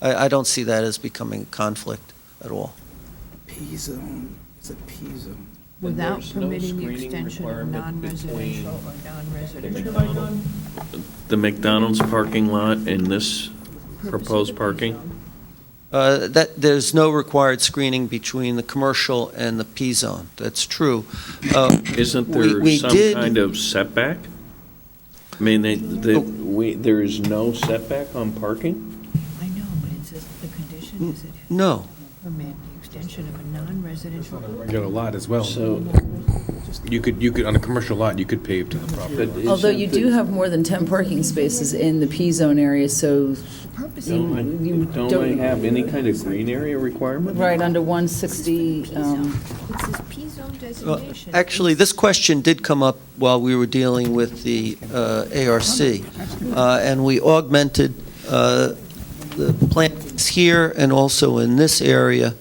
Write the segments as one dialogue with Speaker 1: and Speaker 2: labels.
Speaker 1: I, I don't see that as becoming a conflict at all.
Speaker 2: P-zone, it's a P-zone.
Speaker 3: And
Speaker 4: without
Speaker 3: there's no
Speaker 4: permitting the
Speaker 3: screening
Speaker 4: extension of
Speaker 3: requirement between
Speaker 4: non-residential or
Speaker 3: the
Speaker 4: non-residential.
Speaker 3: McDonald's- The McDonald's parking lot and this proposed parking?
Speaker 1: Uh, That, there's no required screening between the commercial and the P-zone, that's true. Uh,
Speaker 3: Isn't
Speaker 1: We-
Speaker 3: there
Speaker 1: we
Speaker 3: some
Speaker 1: did-
Speaker 3: kind of setback? I mean, they,
Speaker 1: Oh.
Speaker 3: they, we, there is no setback on parking?
Speaker 4: I know, but it says the condition is it has
Speaker 1: No,
Speaker 4: to permit the extension of a non-residential.
Speaker 5: regular lot as well.
Speaker 3: So,
Speaker 5: You could, you could, on a commercial lot, you could pave to the property.
Speaker 3: but isn't
Speaker 6: Although you do
Speaker 3: the-
Speaker 6: have more than 10 parking spaces in the P-zone area, so
Speaker 3: Don't
Speaker 6: you
Speaker 3: I- don't I
Speaker 6: don't,
Speaker 3: have any kind of green area requirement?
Speaker 6: right, under 160, um,
Speaker 4: It says P-zone
Speaker 1: Well,
Speaker 4: designation.
Speaker 1: actually, this question did come up while we were dealing with the uh, ARC, uh, and we augmented uh, the plantings here and also in this area,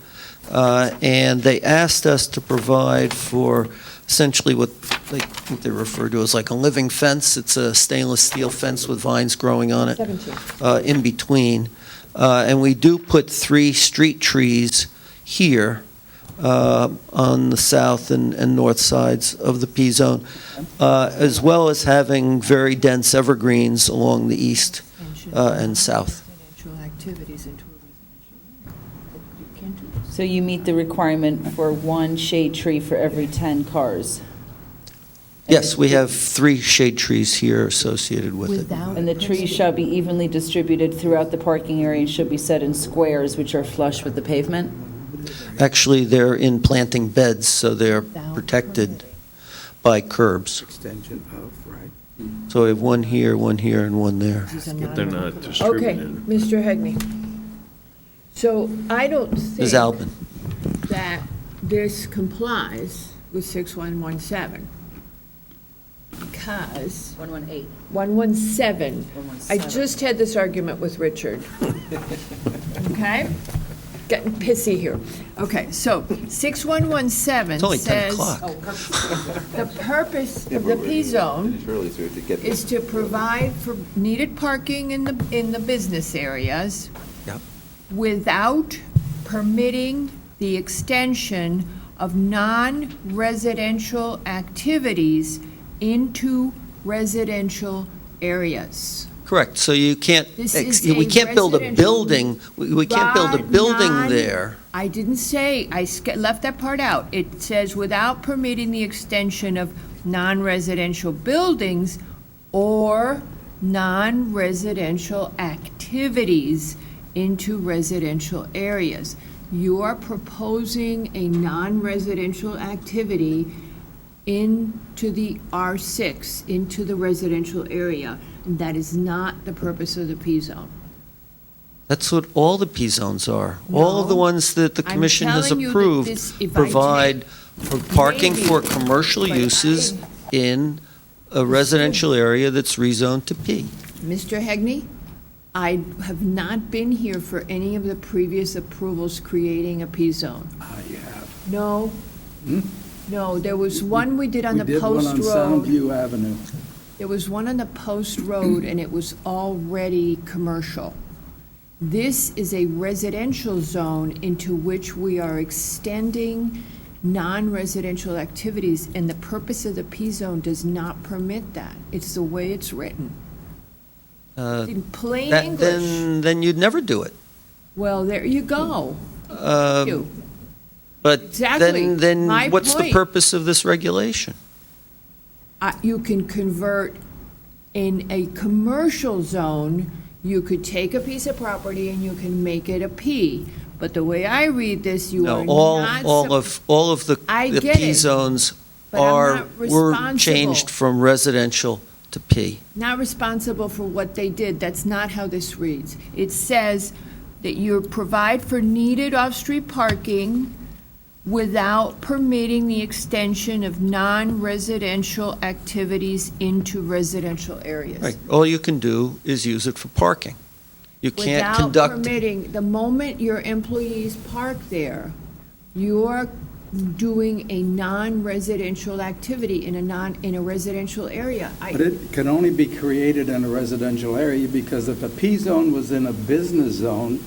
Speaker 1: uh, and they asked us to provide for essentially what they what they refer to as like a living fence. It's a stainless steel fence with vines growing on it. uh, in between. Uh, And we do put three street trees here uh, on the south and, and north sides of the P-zone, uh, as well as having very dense evergreens along the east.
Speaker 4: Extension
Speaker 1: uh,
Speaker 4: of
Speaker 1: and south.
Speaker 4: non-residential activities into a residential. area. You can't do this.
Speaker 6: so you meet the requirement for one shade tree for every 10 cars.
Speaker 1: Yes, we have three shade trees here associated with it.
Speaker 4: Without.
Speaker 6: And the trees shall be evenly distributed throughout the parking area and should be set in squares which are flush with the pavement?
Speaker 1: Actually, they're in planting beds, so they're
Speaker 4: Without
Speaker 1: protected
Speaker 4: permitting.
Speaker 1: by curbs.
Speaker 2: Extension of, right?
Speaker 1: So we have one here, one here, and one there.
Speaker 4: These are
Speaker 3: But they're not
Speaker 4: non-residential.
Speaker 7: Okay,
Speaker 3: distributed.
Speaker 7: Mr. Hegney. So I don't
Speaker 1: Ms.
Speaker 7: think
Speaker 1: Albin?
Speaker 7: that this complies with 6117 because
Speaker 6: 118.
Speaker 7: 117, I
Speaker 6: 117.
Speaker 7: just had this argument with Richard. Okay? Getting pissy here. Okay, so 6117
Speaker 1: It's only 10
Speaker 7: says
Speaker 1: o'clock.
Speaker 7: the purpose of the P-zone is to provide for needed parking in the, in the business areas
Speaker 1: Yep.
Speaker 7: without permitting the extension of non-residential activities into residential areas.
Speaker 1: Correct, so you can't,
Speaker 7: This
Speaker 1: ex-
Speaker 7: is
Speaker 1: we
Speaker 7: a
Speaker 1: can't build a
Speaker 7: residential-
Speaker 1: building, we we can't build a
Speaker 7: Bar
Speaker 1: building
Speaker 7: none.
Speaker 1: there.
Speaker 7: I didn't say, I sk- left that part out. It says without permitting the extension of non-residential buildings or non-residential activities into residential areas. You are proposing a non-residential activity into the R6, into the residential area. That is not the purpose of the P-zone.
Speaker 1: That's what all the P-zones are. All of the
Speaker 7: No.
Speaker 1: ones that the
Speaker 7: I'm
Speaker 1: commission has
Speaker 7: telling you that
Speaker 1: approved
Speaker 7: this- if I
Speaker 1: provide for parking
Speaker 7: Maybe.
Speaker 1: for commercial
Speaker 7: But I-
Speaker 1: uses in a residential area that's rezoned to P.
Speaker 7: Mr. Hegney, I have not been here for any of the previous approvals creating a P-zone.
Speaker 2: Ah, yeah.
Speaker 7: No. No, there was one we did on
Speaker 2: Hmm? We
Speaker 7: the
Speaker 2: did one
Speaker 7: Post
Speaker 2: on
Speaker 7: Road.
Speaker 2: Soundview Avenue.
Speaker 7: There was one on the Post Road, and it was already commercial. This is a residential zone into which we are extending non-residential activities, and the purpose of the P-zone does not permit that. It's the way it's written.
Speaker 1: Uh,
Speaker 7: In plain
Speaker 1: that-
Speaker 7: English.
Speaker 1: Then, then you'd never do it.
Speaker 7: Well, there you go.
Speaker 1: Um,
Speaker 7: You.
Speaker 1: But
Speaker 7: Exactly.
Speaker 1: then, then
Speaker 7: My
Speaker 1: what's the
Speaker 7: point.
Speaker 1: purpose of this regulation?
Speaker 7: Uh, You can convert in a commercial zone, you could take a piece of property and you can make it a P. But the way I read this, you
Speaker 1: No,
Speaker 7: are
Speaker 1: all,
Speaker 7: not.
Speaker 1: all
Speaker 7: sup-
Speaker 1: of, all of the
Speaker 7: I
Speaker 1: the
Speaker 7: get it,
Speaker 1: P-zones
Speaker 7: but I'm
Speaker 1: are,
Speaker 7: not
Speaker 1: were changed
Speaker 7: responsible.
Speaker 1: from residential to P.
Speaker 7: Not responsible for what they did. That's not how this reads. It says that you provide for needed off-street parking without permitting the extension of non-residential activities into residential areas.
Speaker 1: Right, all you can do is use it for parking. You can't
Speaker 7: Without
Speaker 1: conduct,
Speaker 7: permitting, the moment your employees park there, you're doing a non-residential activity in a non, in a residential area. I-
Speaker 2: But it can only be created in a residential area because if a P zone was in a business zone,